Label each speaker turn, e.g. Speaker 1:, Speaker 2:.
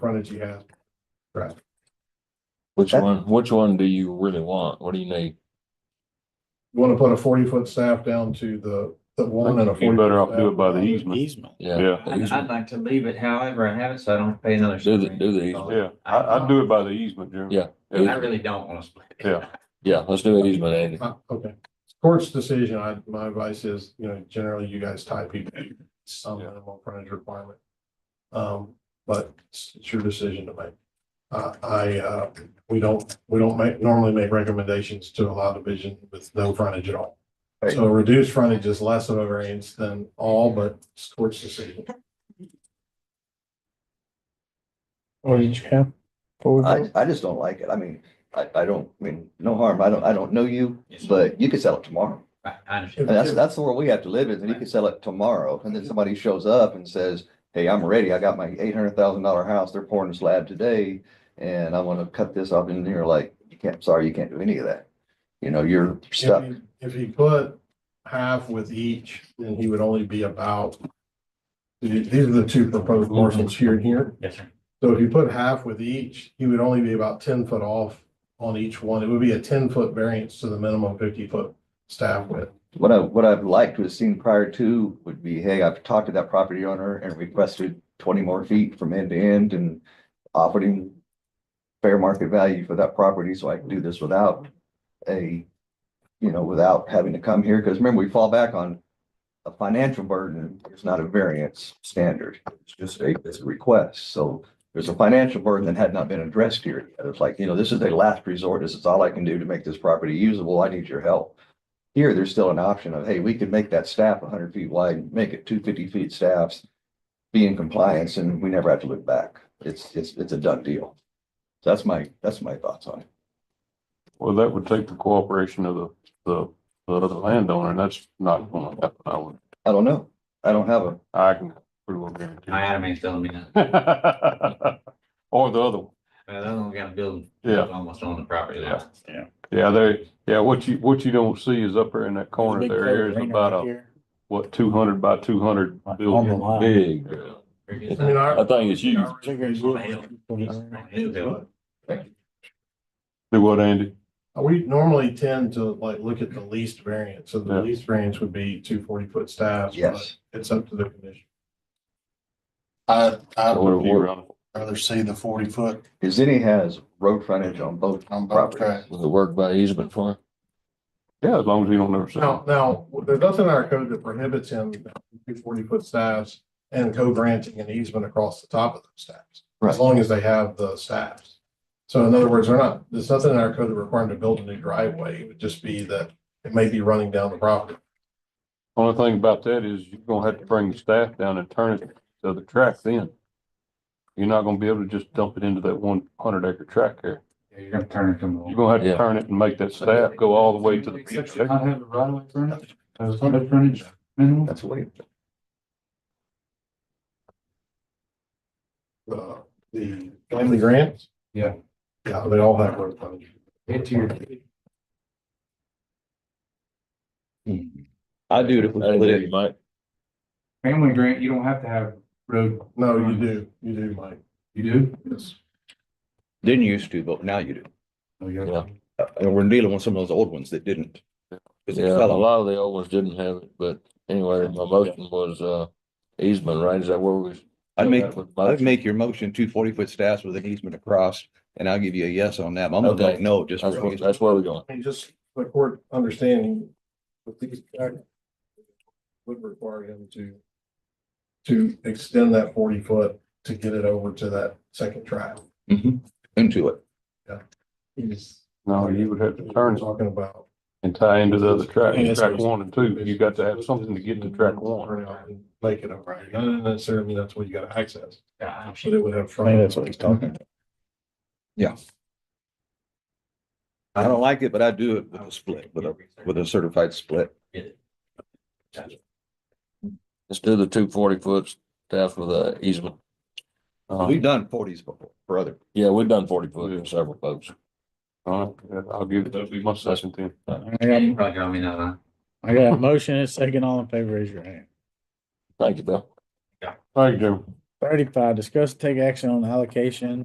Speaker 1: frontage you have.
Speaker 2: Which
Speaker 3: Okay.
Speaker 2: one, which one do you really want? What do you need?
Speaker 1: You Want to put a forty foot staff down to the, the one and a forty.
Speaker 4: You better off do it by the easement,
Speaker 3: Easement.
Speaker 2: Yeah.
Speaker 4: yeah,
Speaker 5: I'd, I'd like to leave it however I have it, so I don't pay another.
Speaker 2: Do the,
Speaker 5: screen.
Speaker 2: do the easement.
Speaker 4: yeah, I, I'd do it by the easement, Jeremy.
Speaker 2: Yeah.
Speaker 5: I really don't wanna split it.
Speaker 4: Yeah.
Speaker 2: Yeah, let's do it easement, Andy.
Speaker 1: Uh, Okay, court's decision, I, my advice is, you know, generally you guys tie people some
Speaker 4: Yeah.
Speaker 1: minimal frontage requirement. Um, but it's it's your decision to make. Uh, I, uh, we don't, we don't make, normally make recommendations to allow division with no frontage at all.
Speaker 3: Right.
Speaker 1: So reduced frontage is less of a variance than all, but it's court's decision.
Speaker 6: What did you have? What was
Speaker 3: I,
Speaker 6: it?
Speaker 3: I just don't like it. I mean, I, I don't, I mean, no harm. I don't, I don't know you,
Speaker 5: Yes.
Speaker 3: but you could sell it tomorrow.
Speaker 5: I, I
Speaker 3: And
Speaker 5: understand.
Speaker 3: that's, that's the world we have to live in. That you could sell it tomorrow. And then somebody shows up and says, hey, I'm ready. I got my eight hundred thousand dollar house. They're pouring the slab today. And I want to cut this off and you're like, you can't, sorry, you can't do any of that. You know, you're
Speaker 1: If
Speaker 3: stuck.
Speaker 1: he- if he put half with each, then he would only be about. These these are the two proposed parcels here and here.
Speaker 5: Yes, sir.
Speaker 1: So if you put half with each, he would only be about ten foot off on each one. It would be a ten foot variance to the minimum fifty foot staff width.
Speaker 3: What I, what I've liked to have seen prior to would be, hey, I've talked to that property owner and requested twenty more feet from end to end and offered him fair market value for that property, so I can do this without a, you know, without having to come here, because remember, we fall back on a financial burden, it's not a variance standard, it's just a, it's a request, so there's a financial burden that had not been addressed here. yet. It's like, you know, this is a last resort, this is all I can do to make this property usable, I need your help. Here, there's still an option of, hey, we could make that staff hundred feet wide, make it two fifty feet staffs. Be in compliance and we never have to look back. It's, it's, it's a done deal. So that's my, that's my thoughts on it.
Speaker 4: Well, that would take the cooperation of the, the, the other landowner, and that's not gonna happen, I would,
Speaker 3: I don't know. I don't have a,
Speaker 4: I can pretty well guarantee.
Speaker 5: My anime is telling me that.
Speaker 4: it. Or the other one.
Speaker 5: Well, that one got a building.
Speaker 4: Yeah.
Speaker 5: Almost on the property there.
Speaker 4: Yeah, they, yeah, what you, what you don't see is up there in that corner
Speaker 6: Big
Speaker 4: there is
Speaker 6: right
Speaker 4: about a,
Speaker 6: here.
Speaker 4: what, two hundred by two hundred
Speaker 6: On the
Speaker 4: building.
Speaker 6: line.
Speaker 2: Big.
Speaker 5: Pretty
Speaker 1: I mean,
Speaker 5: good.
Speaker 2: I
Speaker 1: our.
Speaker 2: think it's huge.
Speaker 6: Bigger as
Speaker 5: Well, it's built.
Speaker 4: Do what, Andy?
Speaker 1: We normally tend to like look at the least variance, so the
Speaker 4: Yeah.
Speaker 1: least variance would be two forty foot staffs. but
Speaker 3: yes.
Speaker 1: It's up to the commission.
Speaker 7: I, I'd
Speaker 4: Or
Speaker 2: What- what-
Speaker 4: around-
Speaker 7: rather see the forty foot
Speaker 3: Cause then he has road frontage on both
Speaker 7: on both
Speaker 3: properties.
Speaker 7: tracks.
Speaker 2: Will it work by easement for him?
Speaker 4: Yeah, as long as you don't ever say.
Speaker 1: Now, now, there's nothing in our code that prohibits him two forty foot staffs and co-granting an easement across the top of those staffs.
Speaker 3: Right.
Speaker 1: As long as they have the staffs. So in other words, they're not, there's nothing in our code that requires them to build a new driveway. It would just be that it may be running down the property.
Speaker 4: Only thing about that is you're gonna have to bring the staff down and turn it to the track then. You're not gonna be able to just dump it into that one hundred acre track there.
Speaker 5: You're gonna turn it to
Speaker 4: You're
Speaker 5: more.
Speaker 4: gonna have to
Speaker 2: Yeah.
Speaker 4: turn it and make that staff go all the way to
Speaker 8: Section I
Speaker 4: the.
Speaker 8: have a right of way frontage, a frontage frontage minimum.
Speaker 3: That's way,
Speaker 1: Uh, The family grants?
Speaker 8: Yeah.
Speaker 1: Yeah, they all have road frontage.
Speaker 5: Into your.
Speaker 3: I do to
Speaker 2: That'd do, Mike.
Speaker 8: Family grant, you don't have to have road,
Speaker 1: No, you do, you do, Mike.
Speaker 8: you do?
Speaker 3: Didn't used to, but now you do.
Speaker 8: Oh, yeah.
Speaker 2: Yeah.
Speaker 3: And we're dealing with some of those old ones that didn't.
Speaker 2: Yeah, a lot of the old ones didn't have it, but anyway, my motion was, uh, easement, right? Is that where we?
Speaker 3: I'd make,
Speaker 2: That was
Speaker 3: I'd
Speaker 2: motion.
Speaker 3: make your motion two forty foot staffs with an easement across and I'll give you a yes on that. I'm gonna
Speaker 2: Okay.
Speaker 3: vote no just.
Speaker 2: That's
Speaker 3: for
Speaker 2: where,
Speaker 3: easement.
Speaker 2: that's where we're going.
Speaker 1: And just the court understanding with these guys would require him to to extend that forty foot to get it over to that second track.
Speaker 3: Mhm. Into it.
Speaker 4: No, you Oh, would have to turn it
Speaker 1: Talking about.
Speaker 4: and tie into the other track,
Speaker 1: Yeah, that's
Speaker 4: track
Speaker 1: what-
Speaker 4: one and two. You got to have something to get to track one.
Speaker 1: Turn out and Make it over. Not necessarily mean uh, that's what you gotta access,
Speaker 5: Yeah,
Speaker 1: but it would have.
Speaker 6: I think that's what he's talking about.
Speaker 3: I don't like it, but I do it with a split, with a, with a certified split.
Speaker 2: Let's do the two forty foot staff with the easement.
Speaker 4: Uh,
Speaker 2: Uh-huh.
Speaker 3: We've done forties before, brother.
Speaker 2: Yeah, we've done forty foot for several folks.
Speaker 4: all right, I'll give, that'll be my second then.
Speaker 6: I
Speaker 5: You
Speaker 6: got,
Speaker 5: probably got me now, huh?
Speaker 6: I got a motion and a second. All in favor, raise your hand.
Speaker 2: Thank you, Bill.
Speaker 4: Thank you, Jim.
Speaker 6: Thirty-five, discuss and take action on allocation